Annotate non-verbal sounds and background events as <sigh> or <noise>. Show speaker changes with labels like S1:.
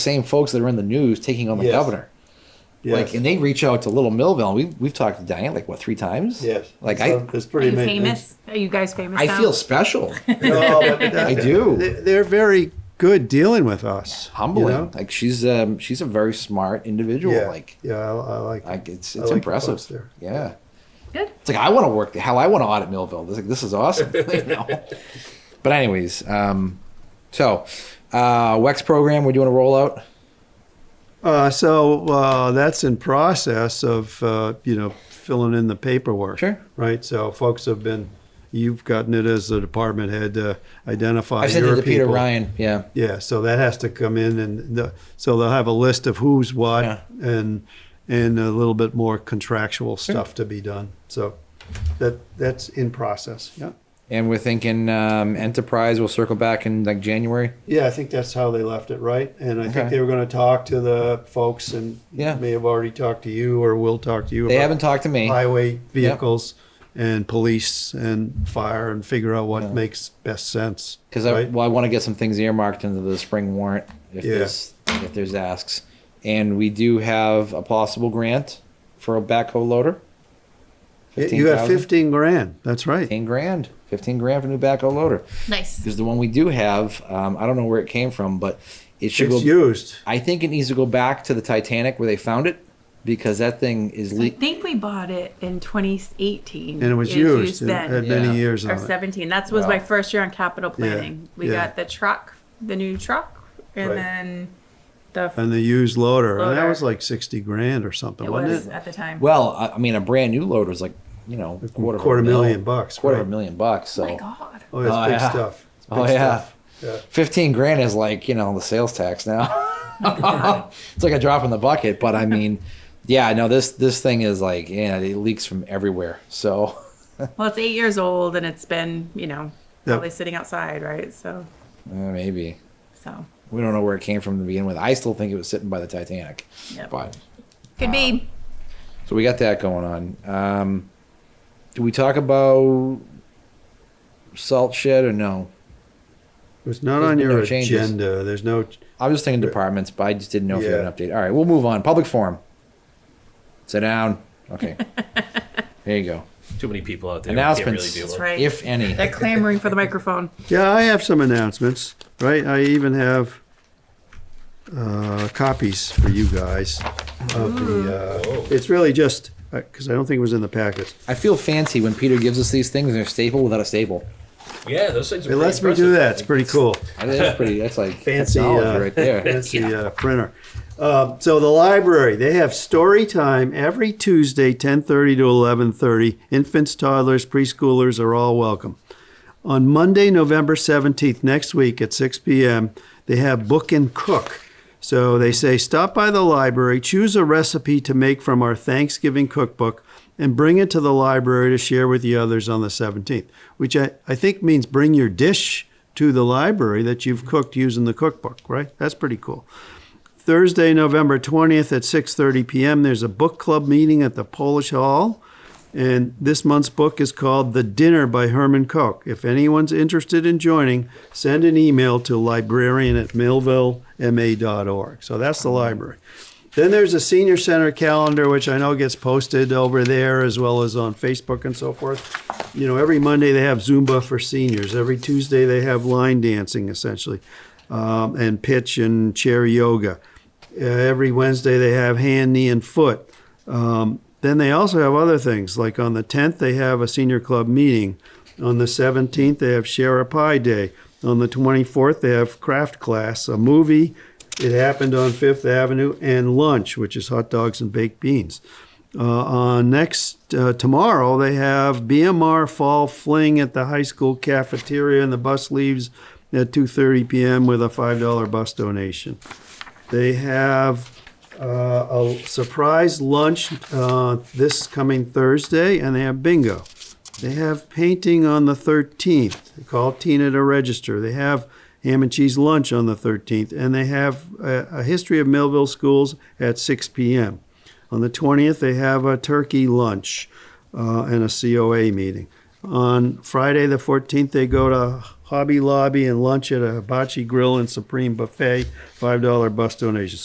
S1: same folks that are in the news taking on the
S2: Yes.
S1: governor. Like, and they reach out to Little Millville. We've we've talked to Diane like what three times.
S2: yes.
S1: Like
S2: So it's
S3: Are
S2: pretty
S3: you
S2: amazing.
S3: famous? Are you guys famous?
S1: I I
S3: now?
S1: feel special,
S2: No,
S1: <laughs>
S2: but that-
S1: I do.
S2: they- They're very good dealing with us. you
S1: humbling.
S2: know?
S1: Like she's um she's a very smart individual.
S2: Yeah,
S1: Like
S2: yeah, I, I like.
S1: like it's
S2: I
S1: it's
S2: like the folks
S1: impressive.
S2: there.
S1: Yeah.
S3: good.
S1: It's like I want to work. Hell, I want to audit Millville. This, like, this is awesome. <laughs> you know? But anyways, um, so uh, Wex program we're doing a rollout.
S2: Uh, so uh, that's in process of uh, you know filling in the paperwork.
S1: Sure.
S2: Right. So folks have been, you've gotten it as the department head to identify.
S1: I sent
S2: your
S1: it to Peter
S2: people.
S1: Ryan. Yeah.
S2: Yeah. So that has to come in, and the, so they'll have a list of who's what,
S1: Yeah.
S2: and and a little bit more contractual stuff to be done. So that that's in process. Yeah.
S1: And we're thinking um, enterprise. We'll circle back in like January.
S2: Yeah, I think that's how they left it, right? And I
S1: Okay.
S2: think they were going to talk to the folks, and
S1: Yeah.
S2: may have already talked to you or will talk to you.
S1: They
S2: about
S1: haven't talked to me.
S2: Highway vehicles and police and fire and figure out what
S1: Yeah.
S2: makes best sense.
S1: Because I,
S2: right?
S1: well, I want to get some things earmarked into the spring warrant if
S2: Yeah.
S1: there's if there's asks, and we do have a possible grant for a backhoe loader.
S2: you got
S1: 15,000?
S2: fifteen grand. That's right.
S1: Fifteen grand, fifteen grand for new backhoe loader.
S3: Nice.
S1: Because the one we do have, um, I don't know where it came from, but it should
S2: It's
S1: go.
S2: used.
S1: I think it needs to go back to the Titanic where they found it, because that thing is
S3: I
S1: leak.
S3: think we bought it in 2018.
S2: And it was used. It had
S3: then.
S1: Yeah.
S2: many years
S3: Or
S2: on it.
S3: 17. That was
S1: Wow.
S3: my first year on capital planning. We
S2: yeah.
S3: got the truck, the new truck, and
S2: Right.
S3: then the
S2: And the used loader. And that
S3: Loader.
S2: was like sixty grand or something,
S3: it
S2: wasn't
S3: was
S2: it?
S3: at the time.
S1: Well, I, I mean, a brand new loader is like you know a quarter of a
S2: Quarter
S1: mil-
S2: million bucks,
S1: quarter of
S2: right.
S1: a million bucks. So
S3: oh my god.
S2: Oh, it's
S1: Oh,
S2: big
S1: yeah.
S2: stuff. It's
S1: Oh,
S2: big
S1: yeah.
S2: stuff. Yeah.
S1: 15 grand is like you know the sales tax now <laughs> it's like a drop in the bucket but i mean yeah no this this thing is like yeah it leaks from everywhere so
S3: Well, it's eight years old and it's been, you know,
S2: Yeah.
S3: probably sitting outside, right? So,
S1: eh, maybe
S3: so
S1: we don't know where it came from to begin with i still think it was sitting by the titanic
S3: Yep.
S1: but
S3: could be.
S1: so we got that going on um do we talk about salt shed or no
S2: It was not
S1: There's
S2: on
S1: been
S2: your
S1: no changes.
S2: agenda. There's no
S1: i was just thinking departments but i just didn't know if you had an
S2: Yeah.
S1: update all right we'll move on public forum sit down okay there you go
S4: Too many people out there.
S1: announcements,
S4: Can't really
S3: That's
S4: do
S3: right.
S1: if any.
S3: They're clamoring for the microphone.
S2: Yeah, I have some announcements, right? I even have uh, copies for you guys of the, uh,
S1: Mm.
S2: it's really just, because I don't think it was in the packets.
S1: I feel fancy when Peter gives us these things and they're staple without a staple.
S4: it. Yeah, those things are
S2: It lets
S4: pretty
S2: me do
S4: impressive.
S2: that. It's pretty cool.
S1: I think That's pretty. That's like
S2: Fancy,
S1: technology
S2: uh,
S1: right
S2: <laughs>
S1: there.
S2: fancy uh, printer. Um, so the library, they have story time every Tuesday, 10:30 to 11:30. Infants, toddlers, preschoolers are all welcome. On Monday, November 17th, next week at 6 p.m., they have Book and Cook. So they say, stop by the library, choose a recipe to make from our Thanksgiving cookbook, and bring it to the library to share with the others on the 17th, which I, I think means bring your dish to the library that you've cooked using the cookbook, right? That's pretty cool. Thursday, November 20th at 6:30 p.m. there's a book club meeting at the Polish Hall. And this month's book is called The Dinner by Herman Koch. If anyone's interested in joining, send an email to librarian at millvillema.org. So that's the library. Then there's a senior center calendar, which I know gets posted over there as well as on Facebook and so forth. You know, every Monday they have Zumba for seniors. Every Tuesday they have line dancing essentially, um, and pitch and chair yoga. Uh, every Wednesday they have hand, knee, and foot. Um, then they also have other things like on the 10th they have a senior club meeting. On the 17th they have share a pie day. On the 24th they have craft class, a movie. It happened on Fifth Avenue and lunch, which is hot dogs and baked beans. Uh, on next uh, tomorrow they have BMR Fall Fling at the high school cafeteria, and the bus leaves at 2:30 p.m. with a $5 bus donation. They have uh, a surprise lunch uh, this coming Thursday, and they have bingo. They have painting on the 13th. They call Tina to register. They have ham and cheese lunch on the 13th, and they have a, a history of Millville schools at 6 p.m. On the 20th, they have a turkey lunch uh, and a COA meeting. On Friday, the 14th, they go to Hobby Lobby, and lunch at a hibachi grill and Supreme Buffet, $5 bus donation.